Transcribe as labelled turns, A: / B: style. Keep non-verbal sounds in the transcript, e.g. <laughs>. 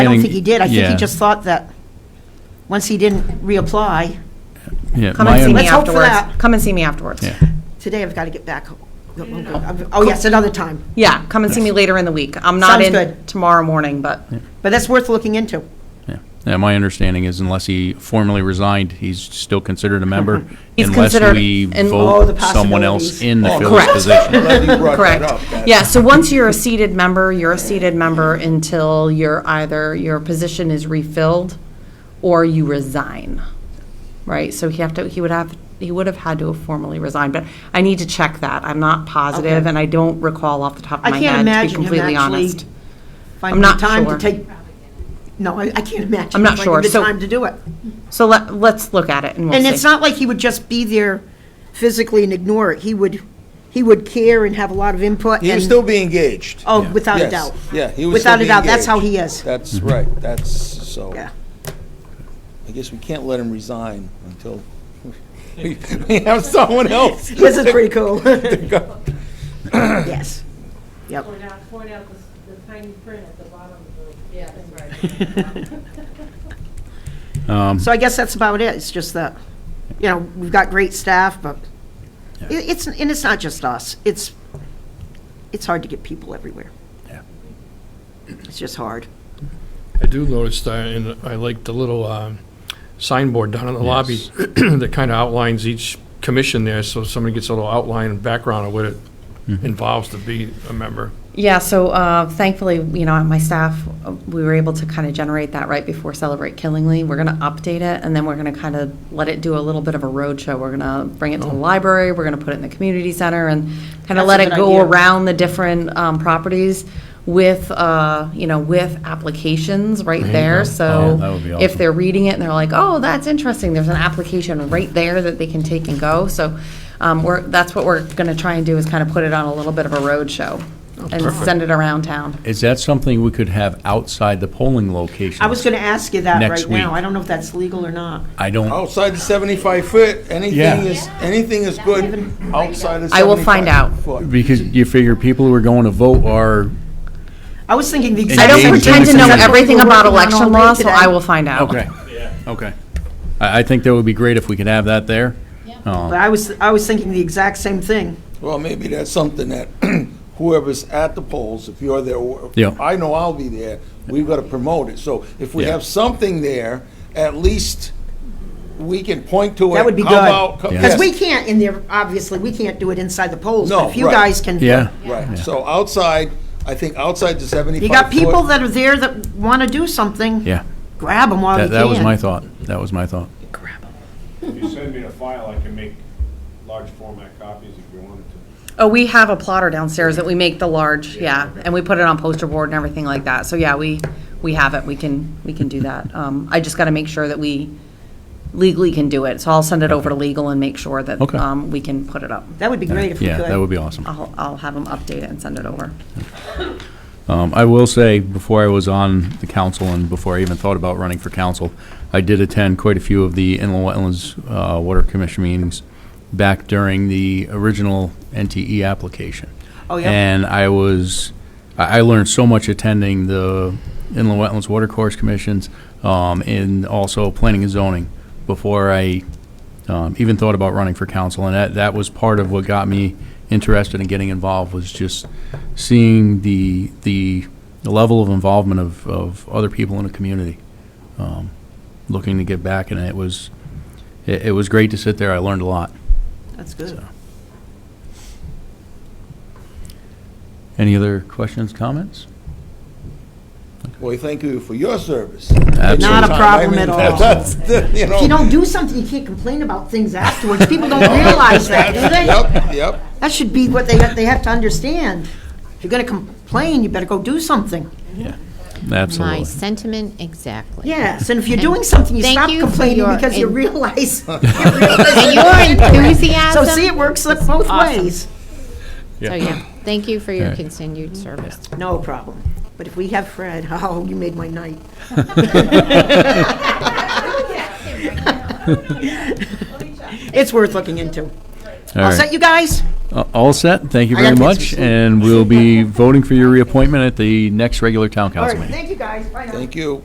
A: I don't
B: getting-
A: think he did. I think he
B: yeah.
A: just thought that, once he didn't reapply,
B: Yeah,
C: Come
B: my
C: and see
B: un-
C: me
A: Let's hope for
C: afterwards.
A: that.
C: Come and see me afterwards.
B: Yeah.
A: today I've got to get back. Oh, yes, another time.
C: Yeah, come and see me later in the week. I'm not
A: Sounds
C: in
A: good.
C: tomorrow morning, but,
A: But that's worth looking into.
B: Yeah. Yeah, my understanding is unless he formally resigned, he's still considered a member.
C: <laughs> He's considered
B: Unless we
C: in- Oh,
A: the
B: vote someone else
A: possibilities.
B: in the
D: Oh,
B: filler's
A: <laughs>
B: position.
C: correct. <laughs>
D: Glad you brought that
C: correct.
D: up, that-
C: Yeah, so once you're a seated member, you're a seated member until you're either, your position is refilled or you resign, right? So he have to, he would have, he would have had to have formally resigned, but I need to check that. I'm not positive
A: Okay.
C: and I don't recall off the top of
A: I
C: my
A: can't
C: head, to be
A: imagine him
C: completely
A: actually
C: honest.
A: finding the
C: not
A: time
C: sure.
A: to take, no, I I can't imagine.
C: I'm not
A: him
C: sure,
A: Finding the
C: so-
A: time to do it.
C: So let, let's look at it and we'll
A: And
C: see.
A: it's not like he would just be there physically and ignore it. He would, he would care and have a lot of input.
D: He would
A: and-
D: still be engaged.
A: Oh, without a
D: Yes,
A: doubt.
D: Yeah, he would still
A: Without
D: be
A: a doubt, that's how
D: engaged.
A: he
D: <laughs>
A: is.
D: That's right, that's, so,
A: Yeah.
D: I guess we can't let him resign until we <laughs> we have someone else.
A: This is pretty
D: <laughs>
A: cool. Yes. Yep.
E: Point out, point out the s- the tiny print at the bottom of the. Yeah, that's <laughs> right.
A: So I guess that's about it. It's just that, you know, we've got great staff, but it- it's, and it's not just us. It's, it's hard to get people everywhere.
B: Yeah.
A: It's just hard.
F: I do notice that, and I like the little um, signboard down in the lobby <clears throat> that kind of outlines each commission there, so somebody gets a little outline and background of what it involves to be a member.
C: Yeah, so uh, thankfully, you know, my staff, uh, we were able to kind of generate that right before Celebrate Killingly. We're going to update it, and then we're going to kind of let it do a little bit of a roadshow. We're going to bring it to
B: Oh.
C: the library, we're going to put it in the community center, and kind
A: That's a
C: of let it
A: good
C: go
A: idea.
C: around the different um, properties with, uh, you know, with applications right there.
B: Oh,
C: So
B: that would be
C: if
B: awesome.
C: they're reading it and they're like, oh, that's interesting, there's an application right there that they can take and go. So um, we're, that's what we're going to try and do is kind of put it on a little bit of a roadshow and send it around town.
B: Is that something we could have outside the polling location?
A: I was going to ask you that
B: Next
A: right now.
B: week.
A: I don't know if that's legal or not.
B: I don't,
D: Outside the 75 foot, anything
B: Yeah.
D: is, anything is good outside of 75
C: I will find out.
D: foot.
B: because you figure people who are going to vote are,
A: I was thinking the
C: I
A: exact
C: don't
B: Engage
A: same
B: in
C: pretend
B: the
C: to know
B: community.
C: everything
A: We're
C: about
A: working on all
C: election
A: day
C: law, so
A: today.
C: I will find out.
B: okay, okay. I, I think that would be great if we could have that there.
A: But I was, I was thinking the exact same thing.
D: Well, maybe that's something that <clears throat> whoever's at the polls, if you're there, or-
B: Yeah.
D: I know I'll be there, we've got to promote it. So if we
B: Yeah.
D: have something there, at least we can point to it.
A: That would be
D: How
A: good.
D: about-
A: Because
D: yes.
A: we can't in there, obviously, we can't do it inside the polls. but
D: No,
A: If you
D: right.
A: guys can.
B: Yeah,
D: Right, so outside, I think outside the 75
A: You got people
D: foot-
A: that are there that want to do something.
B: yeah.
A: Grab them while you
B: That,
A: can.
B: that was my thought. That was my thought.
G: If you send me a file, I can make large format copies if you wanted to.
C: Oh, we have a plotter downstairs that we make the large, yeah, and we put it on poster board and everything like that. So yeah, we, we have it, we can, we can do that. Um, I just got to make sure that we legally can do it, so I'll send it over to legal and make sure that
B: Okay.
C: um, we can put it up.
A: That would be great if we could.
B: Yeah, that would be awesome.
C: I'll, I'll have them update it and send it over.
B: Um, I will say, before I was on the council and before I even thought about running for council, I did attend quite a few of the Inland Wetlands uh, Water Commission meetings back during the original NTE application.
A: Oh, yeah.
B: And I was, I I learned so much attending the Inland Wetlands Water Course Commissions um, and also planning and zoning before I um, even thought about running for council, and that, that was part of what got me interested in getting involved, was just seeing the, the level of involvement of, of other people in the community, um, looking to get back, and it was, it, it was great to sit there, I learned a lot.
A: That's good.
B: Any other questions, comments?
D: Well, thank you for your service.
A: Not a problem at all.
D: <laughs> That's, the- you know.
A: If you don't do something, you can't complain about things afterwards. People don't realize that, do they?
D: Yep, yep.
A: That should be what they, they have to understand. If you're gonna complain, you better go do something.
H: My
B: Absolutely.
H: sentiment exactly.
A: Yes, and if you're doing something, you
H: Thank
A: stop
H: you for
A: complaining
H: your
A: because you
H: en- <laughs>
A: realize. <laughs>
H: And your
A: So
H: enthusiasm.
A: see, it works like both
H: Awesome.
A: ways.
H: So, Oh, yeah, thank you for your
B: Alright.
H: continued service.
A: No problem. But if we have Fred, <laughs> oh, you made my night.
H: <laughs>
A: <laughs> It's worth looking into. All
B: All right.
A: set, you guys?
B: Uh, All set, thank you
A: I gotta
B: very
A: take some
B: much,
A: sleep.
B: and we'll be voting for your reappointment at the next regular town
A: All
B: council
A: right,
B: meeting.
A: thank you, guys. Bye now.
D: Thank you.